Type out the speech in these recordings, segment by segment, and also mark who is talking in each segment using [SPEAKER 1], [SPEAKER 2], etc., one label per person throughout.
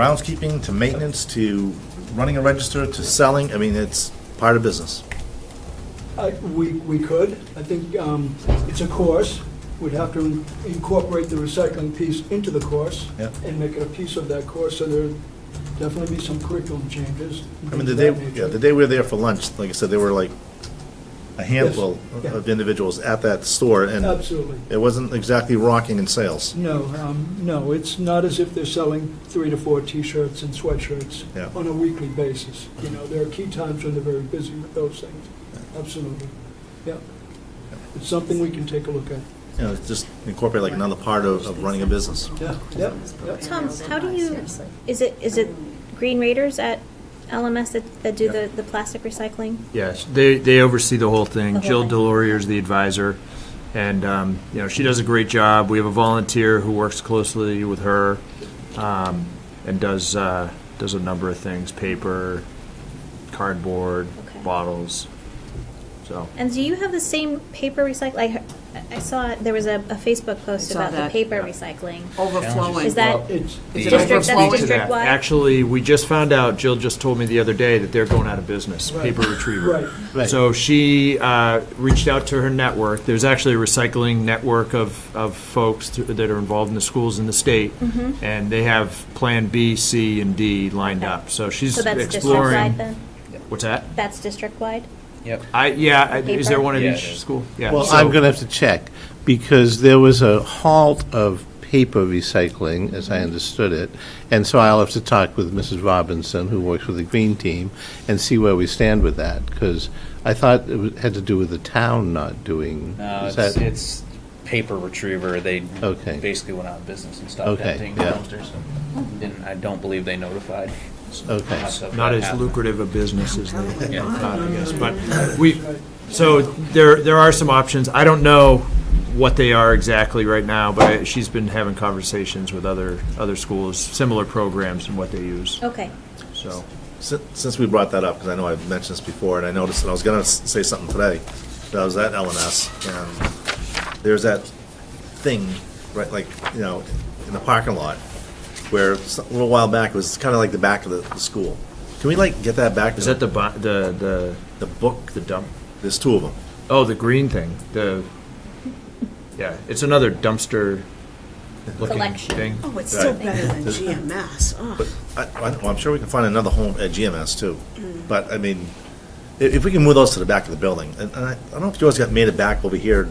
[SPEAKER 1] groundskeeping to maintenance to running a register to selling. I mean, it's part of business.
[SPEAKER 2] I- We, we could. I think um, it's a course. We'd have to in- incorporate the recycling piece into the course
[SPEAKER 1] Yeah.
[SPEAKER 2] and make it a piece of that course, so there'd definitely be some curriculum changes.
[SPEAKER 1] I mean, the
[SPEAKER 2] of
[SPEAKER 1] day,
[SPEAKER 2] that nature.
[SPEAKER 1] yeah, the day we were there for lunch, like I said, there were like a handful
[SPEAKER 2] Yes, yeah.
[SPEAKER 1] of individuals at that store, and
[SPEAKER 2] Absolutely.
[SPEAKER 1] it wasn't exactly rocking in sales.
[SPEAKER 2] No, um, no, it's not as if they're selling three to four T-shirts and sweatshirts
[SPEAKER 1] Yeah.
[SPEAKER 2] on a weekly basis. You know, there are key times when they're very busy with those things. Absolutely. Yeah. It's something we can take a look at.
[SPEAKER 1] You know, it's just incorporate like another part of, of running a business.
[SPEAKER 2] Yeah, yeah, yeah.
[SPEAKER 3] Tom, how do you, is it, is it Green Raiders at LMS that, that do the, the plastic recycling?
[SPEAKER 4] Yes, they, they oversee the whole
[SPEAKER 3] The
[SPEAKER 4] thing.
[SPEAKER 3] whole
[SPEAKER 4] Jill
[SPEAKER 3] thing.
[SPEAKER 4] Delorier is the advisor, and, um, you know, she does a great job. We have a volunteer who works closely with her, um, and does, uh, does a number of things, paper, cardboard,
[SPEAKER 3] Okay.
[SPEAKER 4] bottles, so.
[SPEAKER 3] And do you have the same paper recycle, I, I saw, there was a, a Facebook post
[SPEAKER 5] I saw
[SPEAKER 3] about the
[SPEAKER 5] that.
[SPEAKER 3] paper
[SPEAKER 4] Yeah.
[SPEAKER 3] recycling.
[SPEAKER 5] Overflowing.
[SPEAKER 3] Is that
[SPEAKER 2] It's,
[SPEAKER 5] Is it
[SPEAKER 3] district, that's
[SPEAKER 5] overflowing?
[SPEAKER 3] district wide?
[SPEAKER 4] Actually, we just found out, Jill just told me the other day that they're going out of business,
[SPEAKER 2] Right.
[SPEAKER 4] Paper Retriever.
[SPEAKER 2] right.
[SPEAKER 1] Right.
[SPEAKER 4] So she uh, reached out to her network. There's actually a recycling network of, of folks th- that are involved in the schools in the state, and they have Plan B, C, and D lined
[SPEAKER 3] Mm-hmm. Okay.
[SPEAKER 4] up. So she's
[SPEAKER 3] So that's district-wide
[SPEAKER 4] exploring.
[SPEAKER 3] then?
[SPEAKER 4] What's that?
[SPEAKER 3] That's district-wide?
[SPEAKER 6] Yep.
[SPEAKER 4] I, yeah, I- is there
[SPEAKER 3] Paper?
[SPEAKER 4] one at
[SPEAKER 6] Yeah, it
[SPEAKER 4] each
[SPEAKER 6] is.
[SPEAKER 4] school? Yeah.
[SPEAKER 7] Well,
[SPEAKER 4] so-
[SPEAKER 7] I'm going to have to check, because there was a halt of paper recycling, as I understood it, and so I'll have to talk with Mrs. Robinson, who works with the Green Team, and see where we stand with that, because I thought it wa- had to do with the town not doing.
[SPEAKER 6] No,
[SPEAKER 7] is
[SPEAKER 6] it's,
[SPEAKER 7] that-
[SPEAKER 6] it's paper retriever. They
[SPEAKER 7] Okay.
[SPEAKER 6] basically went out of business and stopped
[SPEAKER 7] Okay,
[SPEAKER 6] emptying
[SPEAKER 7] yeah.
[SPEAKER 6] dumpsters. And I don't believe they notified.
[SPEAKER 7] Okay.
[SPEAKER 6] Lots of
[SPEAKER 4] Not
[SPEAKER 6] that
[SPEAKER 4] as
[SPEAKER 6] happened.
[SPEAKER 4] lucrative a business as they
[SPEAKER 6] Yeah.
[SPEAKER 4] thought, I guess, but we, so there, there are some options. I don't know what they are exactly right now, but I- she's been having conversations with other, other schools, similar programs and what they use,
[SPEAKER 3] Okay.
[SPEAKER 4] so.
[SPEAKER 1] Si- Since we brought that up, because I know I've mentioned this before, and I noticed, and I was gonna s- say something today, that I was at LNS, and there's that thing, right, like, you know, in the parking lot, where s- a little while back, it was kind of like the back of the, the school. Can we like get that back?
[SPEAKER 4] Is that the, bu- the, the,
[SPEAKER 1] The book,
[SPEAKER 4] the dump,
[SPEAKER 1] there's two of them.
[SPEAKER 4] oh, the green thing, the, yeah, it's another dumpster looking
[SPEAKER 3] Collection.
[SPEAKER 4] thing.
[SPEAKER 5] Oh, it's still better than
[SPEAKER 1] Right.
[SPEAKER 5] GMS. Oh,
[SPEAKER 1] But I, I don't- well, I'm sure we can find another home at GMS too.
[SPEAKER 2] Mm.
[SPEAKER 1] But I mean, i- if, we can move those to the back of the building, and, and I, I don't know if yours got made it back over here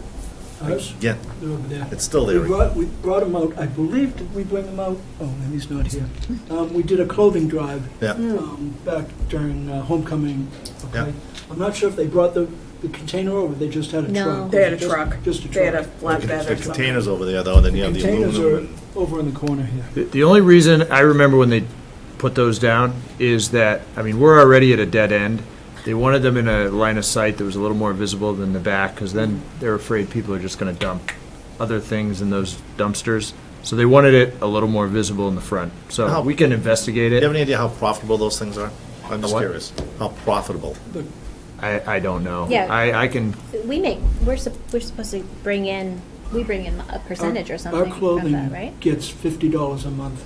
[SPEAKER 2] Ours?
[SPEAKER 1] again.
[SPEAKER 2] They're over there.
[SPEAKER 1] It's still there.
[SPEAKER 2] We brought, we brought them out, I believe, did we bring them out? Oh, Emmy's not here. Um, we did a clothing drive.
[SPEAKER 1] Yeah.
[SPEAKER 2] Um, back during uh, homecoming,
[SPEAKER 1] Yeah.
[SPEAKER 2] okay? I'm not sure if they brought the, the container over, they just had a
[SPEAKER 3] No.
[SPEAKER 2] truck.
[SPEAKER 5] They had a
[SPEAKER 2] Just-
[SPEAKER 5] truck.
[SPEAKER 2] Just a
[SPEAKER 5] They had a
[SPEAKER 2] truck.
[SPEAKER 5] flatbed
[SPEAKER 1] The
[SPEAKER 5] or something.
[SPEAKER 1] containers over there though, and then you have the
[SPEAKER 2] Containers
[SPEAKER 1] aluminum.
[SPEAKER 2] are
[SPEAKER 1] and-
[SPEAKER 2] over in the corner here.
[SPEAKER 4] The- The only reason I remember when they put those down is that, I mean, we're already at a dead end. They wanted them in a line of sight that was a little more visible than the back, because then they're afraid people are just gonna dump other things in those dumpsters. So they wanted it a little more visible in the front. So
[SPEAKER 1] How-
[SPEAKER 4] we can investigate
[SPEAKER 1] Do you have
[SPEAKER 4] it.
[SPEAKER 1] any idea how profitable those things are? I'm just
[SPEAKER 4] what?
[SPEAKER 1] curious. How profitable?
[SPEAKER 4] I, I don't know.
[SPEAKER 3] Yeah.
[SPEAKER 4] I, I can,
[SPEAKER 3] We make, we're, sup- we're supposed to bring in, we bring in a percentage or something
[SPEAKER 2] Our
[SPEAKER 3] from that, right?
[SPEAKER 2] clothing gets fifty dollars a month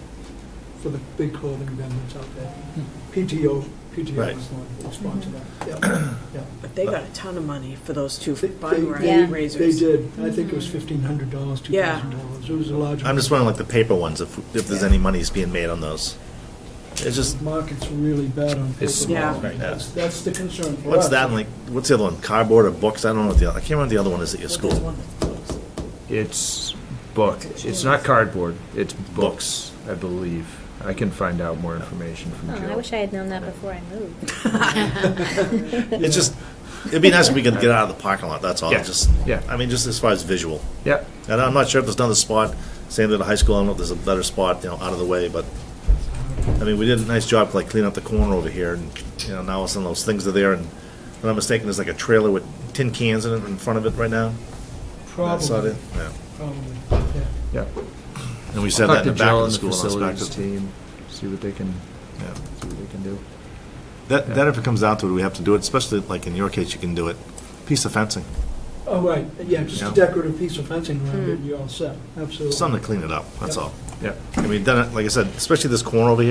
[SPEAKER 2] for the big clothing vendors out there. PTO, PTO
[SPEAKER 1] Hmm. Right.
[SPEAKER 2] is the one who sponsored that, yeah, yeah.
[SPEAKER 5] But they got a ton of money for those two
[SPEAKER 2] They-
[SPEAKER 5] bun
[SPEAKER 2] they-
[SPEAKER 3] Yeah.
[SPEAKER 2] They
[SPEAKER 5] razors.
[SPEAKER 2] did. Mm-hmm. I think it was fifteen hundred dollars, two
[SPEAKER 5] Yeah.
[SPEAKER 2] thousand dollars. It was a large.
[SPEAKER 1] I'm just wondering like the paper ones, if, if there's any money's being made on those. It's just,
[SPEAKER 2] The Market's really bad on paper.
[SPEAKER 4] It's
[SPEAKER 5] small
[SPEAKER 1] right now.
[SPEAKER 2] That's, that's the concern for us.
[SPEAKER 1] what's that and, like, what's the other one? Cardboard or books? I don't know what the, other- I can't remember what the other one is at your school.
[SPEAKER 4] it's book. It's not cardboard. It's books, I believe. I can find out more information from
[SPEAKER 3] Oh, I
[SPEAKER 4] Jill.
[SPEAKER 3] wish I had known that before I moved.
[SPEAKER 1] It's just, it'd be nice if we could get out of the parking lot, that's all.
[SPEAKER 4] Yeah,
[SPEAKER 1] Just,
[SPEAKER 4] yeah.
[SPEAKER 1] I mean, just as far as visual.
[SPEAKER 4] Yep.
[SPEAKER 1] And I'm not sure if there's another spot, same at the high school, I don't know if there's a better spot, you know, out of the way, but, I mean, we did a nice job, like, cleaning up the corner over here, and, you know, now some of those things are there, and, if I'm not mistaken, there's like a trailer with tin cans in it in front of it right now. I saw
[SPEAKER 2] Probably,
[SPEAKER 1] that, yeah.
[SPEAKER 2] probably, yeah.
[SPEAKER 4] Yep.
[SPEAKER 1] And we said
[SPEAKER 4] Talk
[SPEAKER 1] that in
[SPEAKER 4] to
[SPEAKER 1] the back of the
[SPEAKER 4] Jill and
[SPEAKER 1] school, and it's back
[SPEAKER 4] facilities
[SPEAKER 1] to.
[SPEAKER 4] team, see what they can,
[SPEAKER 1] yeah.
[SPEAKER 4] see what they can do.
[SPEAKER 1] That, that if it comes down to it, we have to do it, especially like in your case, you can do it, piece of fencing,
[SPEAKER 2] Oh, right, yeah, just a
[SPEAKER 1] Yeah.
[SPEAKER 2] decorative piece of fencing around it, and you're all set, absolutely.
[SPEAKER 1] something to clean it up, that's all.
[SPEAKER 4] Yeah.
[SPEAKER 1] I mean, then, like I said, especially this corner over here,